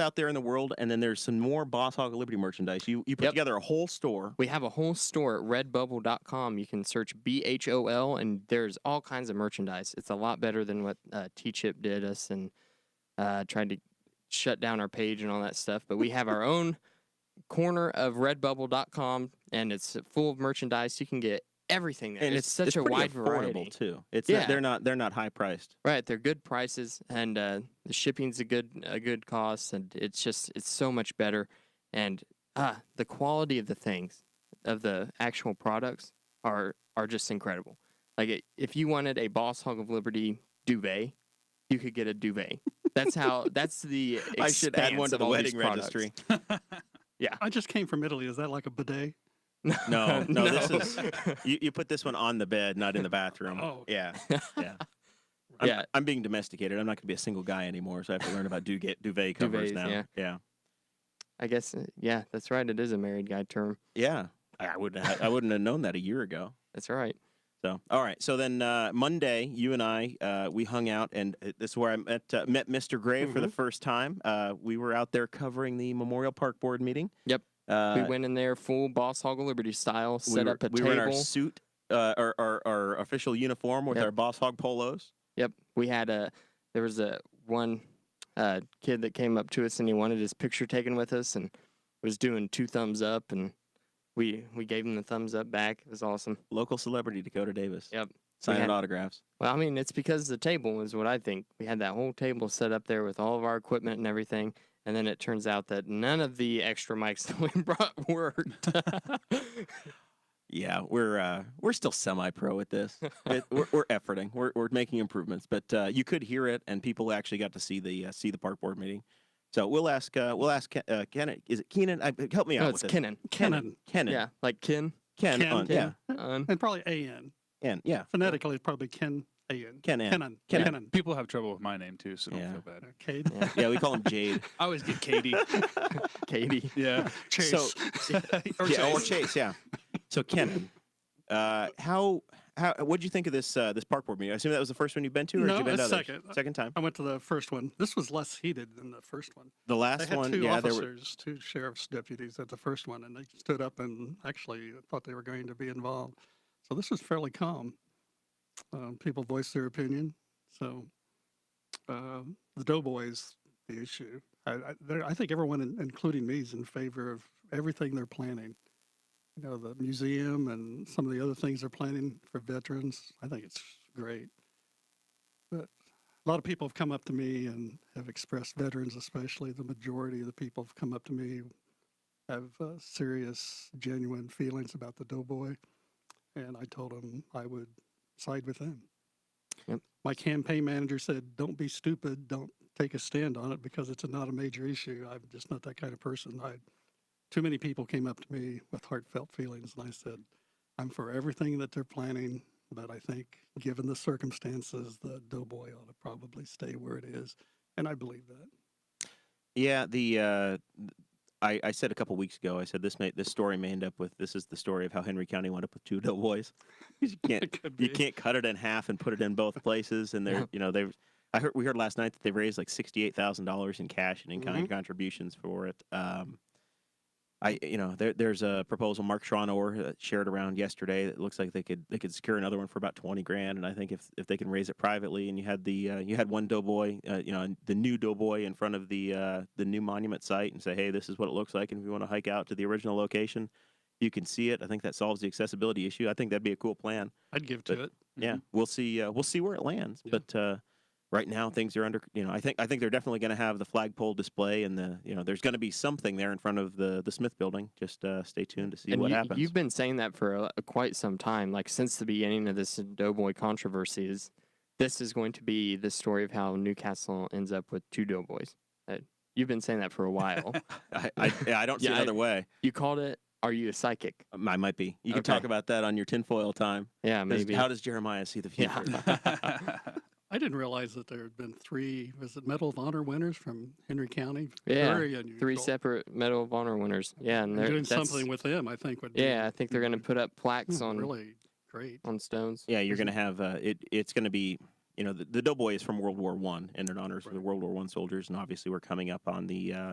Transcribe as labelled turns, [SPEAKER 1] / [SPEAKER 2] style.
[SPEAKER 1] out there in the world, and then there's some more Boss Hog of Liberty merchandise. You you put
[SPEAKER 2] Yep.
[SPEAKER 1] together a whole store.
[SPEAKER 2] We have a whole store at redbubble.com. You can search BHOL and there's all kinds of merchandise. It's a lot better than what uh, T Chip did us and uh, tried to shut down our page and all that stuff. But we have our own corner of redbubble.com and it's full of merchandise. You can get everything there.
[SPEAKER 1] And
[SPEAKER 2] it's, such a
[SPEAKER 1] pretty
[SPEAKER 2] wide
[SPEAKER 1] affordable,
[SPEAKER 2] variety.
[SPEAKER 1] too. It's
[SPEAKER 2] Yeah.
[SPEAKER 1] not, they're not they're not high priced.
[SPEAKER 2] Right, they're good prices, and uh, the shipping's a good a good cost, and it's just it's so much better, and uh, the quality of the things, of the actual products are are just incredible. Like it, if you wanted a Boss Hog of Liberty duvet, you could get a duvet. That's how. that's the.
[SPEAKER 1] I should add one
[SPEAKER 2] expanse
[SPEAKER 1] to
[SPEAKER 2] of
[SPEAKER 1] the
[SPEAKER 2] all these
[SPEAKER 1] wedding
[SPEAKER 2] products.
[SPEAKER 1] registry.
[SPEAKER 3] I just came from Italy. Is that like a bidet?
[SPEAKER 1] No, Oh, no, this is you, you put this one on the bed, not in the bathroom.
[SPEAKER 3] Oh.
[SPEAKER 1] yeah, yeah. I'm,
[SPEAKER 2] Yeah.
[SPEAKER 1] I'm being domesticated. I'm not going to be a single guy anymore, so I have to learn about duvet, duvet covers
[SPEAKER 2] Duvets,
[SPEAKER 1] now.
[SPEAKER 2] yeah.
[SPEAKER 1] yeah,
[SPEAKER 2] I guess. uh, Yeah, that's right. It is a married guy term.
[SPEAKER 1] Yeah. I I wouldn't. Have, I wouldn't have known that a year ago.
[SPEAKER 2] That's right.
[SPEAKER 1] So, all right. So then uh, Monday, you and I, uh, we hung out, and uh, this is where I met uh, met Mr. Gray for the
[SPEAKER 2] Mm-hmm.
[SPEAKER 1] first time. Uh, we were out there covering the Memorial Park Board meeting.
[SPEAKER 2] Yep.
[SPEAKER 1] Uh,
[SPEAKER 2] we went in there full Boss Hog of Liberty style,
[SPEAKER 1] we
[SPEAKER 2] set
[SPEAKER 1] were-
[SPEAKER 2] up a
[SPEAKER 1] we
[SPEAKER 2] table.
[SPEAKER 1] were in our suit, uh, our, our our official uniform with
[SPEAKER 2] Yep.
[SPEAKER 1] our Boss Hog polos.
[SPEAKER 2] Yep. We had a there was a one uh, kid that came up to us and he wanted his picture taken with us and was doing two thumbs up and we we gave him the thumbs up back. It was awesome.
[SPEAKER 1] Local celebrity Dakota Davis.
[SPEAKER 2] Yep. We
[SPEAKER 1] Signing
[SPEAKER 2] had-
[SPEAKER 1] autographs.
[SPEAKER 2] Well, I mean, it's because the table is what I think. We had that whole table set up there with all of our equipment and everything. And then it turns out that none of the extra mics that we brought worked.
[SPEAKER 1] Yeah, we're uh, we're still semi-pro at this. It, we're, we're efforting. We're, we're making improvements, but uh, you could hear it, and people actually got to see the uh, see the park board meeting. So we'll ask uh, we'll ask Ken, uh, Ken is it Keenan? I, help me out
[SPEAKER 2] no,
[SPEAKER 1] with
[SPEAKER 2] it's
[SPEAKER 1] this.
[SPEAKER 2] Kenan.
[SPEAKER 1] Kenan. Kenan.
[SPEAKER 2] Yeah, like Ken.
[SPEAKER 1] Ken.
[SPEAKER 3] Ken.
[SPEAKER 1] on- Yeah.
[SPEAKER 3] Ken.
[SPEAKER 2] Un.
[SPEAKER 3] And probably AN.
[SPEAKER 1] Ken. Yeah.
[SPEAKER 3] Phonetically, it's probably Ken AN.
[SPEAKER 1] Ken. Ann.
[SPEAKER 3] Kenan.
[SPEAKER 1] Kenan.
[SPEAKER 3] Kenan.
[SPEAKER 4] People have trouble with my name too, so don't
[SPEAKER 1] Yeah.
[SPEAKER 4] feel bad.
[SPEAKER 3] Okay.
[SPEAKER 2] Yeah,
[SPEAKER 1] Yeah, we call him Jade.
[SPEAKER 4] I always get Katie.
[SPEAKER 2] Katie.
[SPEAKER 4] yeah.
[SPEAKER 3] Chase.
[SPEAKER 1] So
[SPEAKER 3] or
[SPEAKER 1] yeah, or
[SPEAKER 3] Chase.
[SPEAKER 1] Chase. Yeah. So Kenan, uh, how how what did you think of this uh, this park board meeting? I assume that was the first one you've been to, or
[SPEAKER 3] No,
[SPEAKER 1] had you been to
[SPEAKER 3] that's
[SPEAKER 1] others?
[SPEAKER 3] second.
[SPEAKER 1] Second time.
[SPEAKER 3] I went to the first one. This was less heated than the first one.
[SPEAKER 1] The
[SPEAKER 3] They
[SPEAKER 1] last
[SPEAKER 3] had
[SPEAKER 1] one.
[SPEAKER 3] two
[SPEAKER 1] yeah, there were.
[SPEAKER 3] officers, two sheriff's deputies at the first one, and they stood up and actually thought they were going to be involved. So this was fairly calm. Um, people voiced their opinion. So uh, the doughboys, the issue. I, I, they're- I think everyone, in- including me, is in favor of everything they're planning. You know, the museum and some of the other things they're planning for veterans. I think it's great. But a lot of people have come up to me and have expressed veterans especially the majority of the people have come up to me have uh, serious genuine feelings about the doughboy and i told them i would side with them
[SPEAKER 2] Yep.
[SPEAKER 3] my campaign manager said don't be stupid don't take a stand on it because it's not a major issue i'm just not that kind of person i too many people came up to me with heartfelt feelings and i said i'm for everything that they're planning but I think, given the circumstances, the Doughboy ought to probably stay where it is, and I believe that.
[SPEAKER 1] Yeah, the uh, th- I, I said a couple weeks ago. I said this may this story may end up with this is the story of how Henry County wound up with two doughboys. 'Cause You can't
[SPEAKER 3] could
[SPEAKER 1] you can't cut it in half and put it in both places. And they're you know they I heard we heard last night that they raised like sixty eight thousand dollars in cash and in kind contributions for it. Um, I you know there there's a proposal Mark Schronauer uh, shared around yesterday that looks like they could they could secure another one for about twenty grand and I think if if they can raise it privately and you had the uh, you had one doughboy uh, you know the new doughboy in front of the uh, the new monument site and say hey this is what it looks like and if you want to hike out to the original location you can see it I think that solves the accessibility issue I think that'd be a cool plan
[SPEAKER 3] I'd give
[SPEAKER 1] But-
[SPEAKER 3] to it.
[SPEAKER 1] yeah
[SPEAKER 2] Mm-hmm.
[SPEAKER 1] we'll see uh, we'll see where it lands
[SPEAKER 3] Yeah.
[SPEAKER 1] but uh, right now things are under you know i think i think they're definitely going to have the flagpole display and the you know there's going to be something there in front of the the smith building just uh, stay tuned to see what
[SPEAKER 2] you,
[SPEAKER 1] happens
[SPEAKER 2] You've been saying that for a, quite some time, like since the beginning of this Doughboy controversy. Is this is going to be the story of how Newcastle ends up with two Doughboys? Uh, you've been saying that for a while.
[SPEAKER 1] I, I, yeah, I don't see
[SPEAKER 2] Yeah, I-
[SPEAKER 1] another way
[SPEAKER 2] you called it. Are you a psychic?
[SPEAKER 1] Um, i might be you can talk
[SPEAKER 2] Okay.
[SPEAKER 1] about that on your tinfoil time
[SPEAKER 2] Yeah,
[SPEAKER 1] 'Cause
[SPEAKER 2] maybe.
[SPEAKER 1] how does jeremiah see the
[SPEAKER 2] Yeah.
[SPEAKER 1] future
[SPEAKER 3] I didn't realize that there had been three was it Medal of Honor winners from Henry County.
[SPEAKER 2] Yeah,
[SPEAKER 3] Very unusual.
[SPEAKER 2] Three separate Medal of Honor winners. Yeah, and
[SPEAKER 3] And
[SPEAKER 2] they're
[SPEAKER 3] Doing
[SPEAKER 2] that's-
[SPEAKER 3] something with them, I think would.
[SPEAKER 2] Yeah, I
[SPEAKER 3] be
[SPEAKER 2] think they're going to put up plaques
[SPEAKER 3] hmm,
[SPEAKER 2] on
[SPEAKER 3] really great.
[SPEAKER 2] on stones.
[SPEAKER 1] yeah you're going to have uh, it it's going to be you know the, the doughboy is from world war one and it honors the
[SPEAKER 3] Right.
[SPEAKER 1] world war one soldiers and obviously we're coming up on the uh,